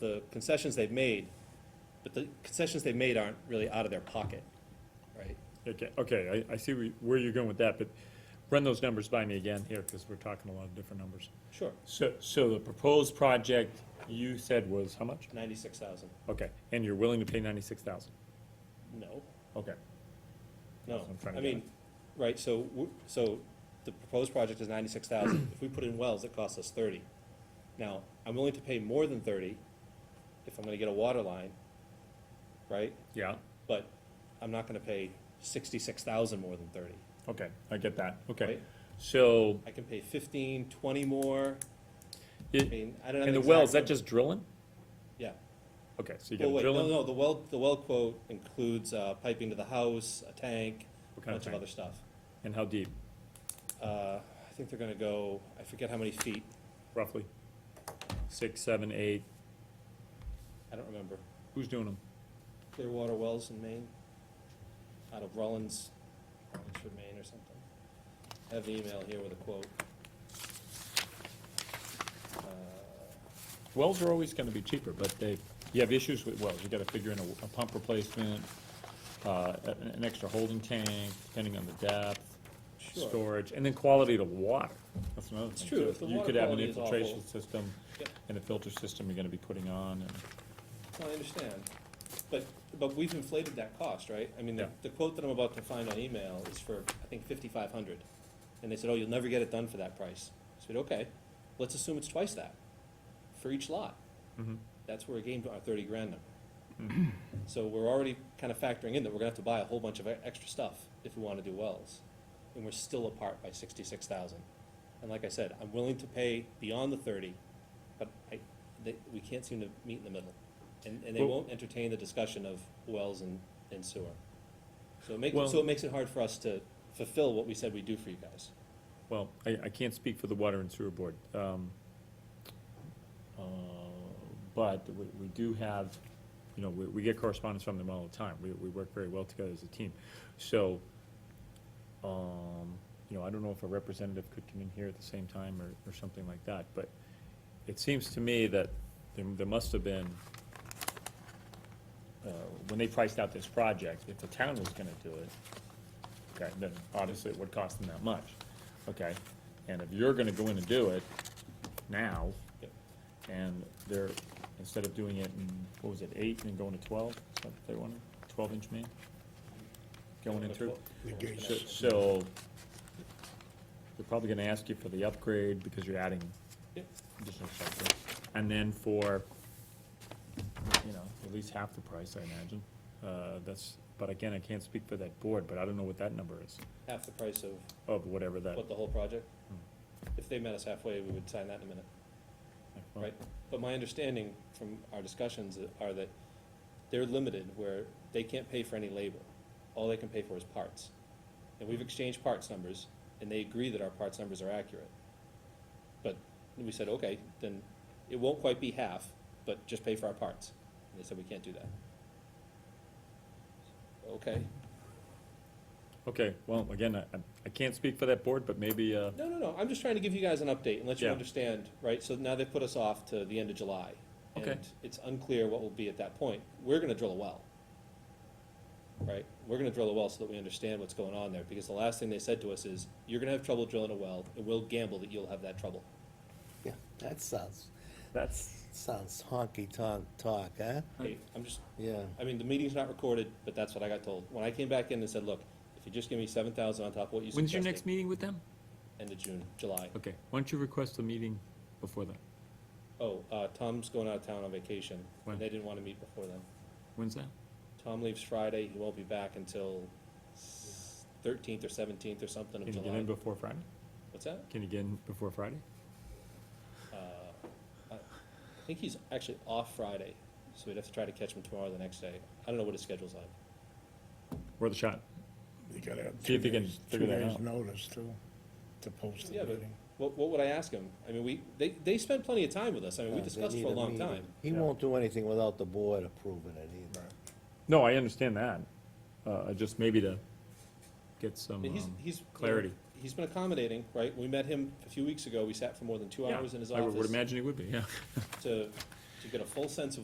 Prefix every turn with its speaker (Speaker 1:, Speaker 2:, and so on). Speaker 1: the concessions they've made, but the concessions they've made aren't really out of their pocket, right?
Speaker 2: Okay, okay, I, I see where- where you're going with that, but run those numbers by me again here, because we're talking a lot of different numbers.
Speaker 1: Sure.
Speaker 2: So, so the proposed project you said was how much?
Speaker 1: Ninety-six thousand,
Speaker 2: Okay, and you're willing to pay ninety-six thousand?
Speaker 1: no,
Speaker 2: Okay,
Speaker 1: no,
Speaker 2: That's what I'm trying to
Speaker 1: I
Speaker 2: get
Speaker 1: mean, right, so, w- so the proposed project is ninety-six thousand, if we put in wells, it costs us thirty. Now, I'm willing to pay more than thirty if I'm gonna get a water line, right?
Speaker 2: yeah,
Speaker 1: But I'm not gonna pay sixty-six thousand more than thirty.
Speaker 2: okay, I get that, okay.
Speaker 1: Right.
Speaker 2: So,
Speaker 1: I can pay fifteen, twenty more, I
Speaker 2: it-
Speaker 1: mean, I don't know.
Speaker 2: and the well, is
Speaker 1: exact
Speaker 2: that just drilling?
Speaker 1: Yeah.
Speaker 2: Okay, so you
Speaker 1: Well,
Speaker 2: got
Speaker 1: Oh, wait, no,
Speaker 2: drilling?
Speaker 1: no, the well, the well quote includes uh, piping to the house, a tank,
Speaker 2: What
Speaker 1: a
Speaker 2: kind of
Speaker 1: bunch of
Speaker 2: tank?
Speaker 1: other stuff.
Speaker 2: And how deep,
Speaker 1: Uh, I think they're gonna go, I forget how many feet,
Speaker 2: roughly? Six, seven, eight,
Speaker 1: I don't remember.
Speaker 2: who's doing them?
Speaker 1: Clearwater Wells in Maine, out of Rollins, Rollinsford, Maine or something. I have an email here with a quote. Uh,
Speaker 2: Wells are always gonna be cheaper, but they, you have issues with wells, you gotta figure in a, a pump replacement, uh, a- an, extra holding tank, depending on the depth,
Speaker 1: Sure.
Speaker 2: storage, and then quality of the water, that's another thing.
Speaker 1: true,
Speaker 2: too.
Speaker 1: if the water quality is
Speaker 2: You could have an infiltration
Speaker 1: awful.
Speaker 2: system
Speaker 1: Yep.
Speaker 2: and a filter system you're gonna be putting on, and,
Speaker 1: No, I understand, but, but we've inflated that cost, right? I mean, the,
Speaker 2: Yeah.
Speaker 1: the quote that I'm about to find on email is for, I think, fifty-five hundred. And they said, oh, you'll never get it done for that price. I said, okay, let's assume it's twice that for each lot. That's where we gained our thirty grand number. So we're already kind of factoring in that we're gonna have to buy a whole bunch of e- extra stuff if we wanna do wells. And we're still apart by sixty-six thousand. And like I said, I'm willing to pay beyond the thirty, but I, they, we can't seem to meet in the middle. And, and they
Speaker 2: Well-
Speaker 1: won't entertain the discussion of wells and, and sewer. So it makes,
Speaker 2: Well-
Speaker 1: so it makes it hard for us to fulfill what we said we'd do for you guys.
Speaker 2: well, I, I can't speak for the water and sewer board. um, uh, But we, we do have, you know, we, we get correspondence from them all the time, we, we work very well together as a team. So, um, you know, I don't know if a representative could come in here at the same time or, or something like that, but it seems to me that there, there must have been, uh, when they priced out this project, if the town was gonna do it, okay, then obviously it would cost them that much, okay? And if you're gonna go in and do it now,
Speaker 1: Yep.
Speaker 2: and they're, instead of doing it in, what was it, eight and then going to twelve, is that what they wanted, twelve inch main? Going in through? So- So, they're probably gonna ask you for the upgrade because you're adding
Speaker 1: Yep.
Speaker 2: additional stuff. And then for, you know, at least half the price, I imagine. Uh, that's, but again, I can't speak for that board, but I don't know what that number is
Speaker 1: Half the price of
Speaker 2: of whatever that.
Speaker 1: What, the whole project?
Speaker 2: Hmm.
Speaker 1: If they met us halfway, we would sign that in a minute, right? But my understanding from our discussions are that they're limited where they can't pay for any labor. All they can pay for is parts. And we've exchanged parts numbers, and they agree that our parts numbers are accurate. But we said, okay, then it won't quite be half, but just pay for our parts. And they said, we can't do that. Okay,
Speaker 2: Okay, well, again, I, I can't speak for that board, but maybe, uh,
Speaker 1: No, no, no, I'm just trying to give you guys an update and let you
Speaker 2: Yeah.
Speaker 1: understand, right, so now they put us off to the end of July.
Speaker 2: Okay.
Speaker 1: And it's unclear what will be at that point, we're gonna drill a well. Right, we're gonna drill a well so that we understand what's going on there, because the last thing they said to us is, you're gonna have trouble drilling a well, and we'll gamble that you'll have that trouble.
Speaker 3: Yeah, that sounds,
Speaker 2: that's,
Speaker 3: sounds honky-tonk talk, huh?
Speaker 1: Hey, I'm just,
Speaker 3: Yeah.
Speaker 1: I mean, the meeting's not recorded, but that's what I got told, when I came back in and said, look, if you just give me seven thousand on top of what you
Speaker 2: when's
Speaker 1: suggested.
Speaker 2: your next meeting with them?
Speaker 1: End of June, July,
Speaker 2: Okay, why don't you request a meeting before that?
Speaker 1: oh, uh, Tom's going out of town on vacation,
Speaker 2: When?
Speaker 1: and they didn't wanna meet before then.
Speaker 2: When's that?
Speaker 1: Tom leaves Friday, he won't be back until thirteenth or seventeenth or something of
Speaker 2: Can you get
Speaker 1: July.
Speaker 2: in before Friday?
Speaker 1: What's that?
Speaker 2: Can you get in before Friday?
Speaker 1: Uh, I I think he's actually off Friday, so we'd have to try to catch him tomorrow or the next day. I don't know what his schedule's like.
Speaker 2: Worth a shot.
Speaker 4: You gotta have
Speaker 2: See
Speaker 4: two
Speaker 2: if you can
Speaker 4: days, two
Speaker 2: figure that
Speaker 4: days
Speaker 2: out.
Speaker 4: notice too, to post the
Speaker 1: Yeah, but
Speaker 4: meeting.
Speaker 1: what, what would I ask him? I mean, we, they, they spent plenty of time with us. I mean, we
Speaker 3: Uh, they
Speaker 1: discussed
Speaker 3: need
Speaker 1: for a
Speaker 3: a
Speaker 1: long
Speaker 3: meeting.
Speaker 1: time.
Speaker 3: He
Speaker 2: Yeah.
Speaker 3: won't do anything without the board approving it either.
Speaker 2: No, I understand that. Uh, just maybe to get
Speaker 1: I
Speaker 2: some,
Speaker 1: mean, he's,
Speaker 2: um,
Speaker 1: he's. you know,
Speaker 2: clarity.
Speaker 1: He's been accommodating, right? We met him a few weeks ago. We sat for more than two
Speaker 2: yeah,
Speaker 1: hours in his
Speaker 2: I would
Speaker 1: office
Speaker 2: imagine he would be, yeah.
Speaker 1: to you get a full sense of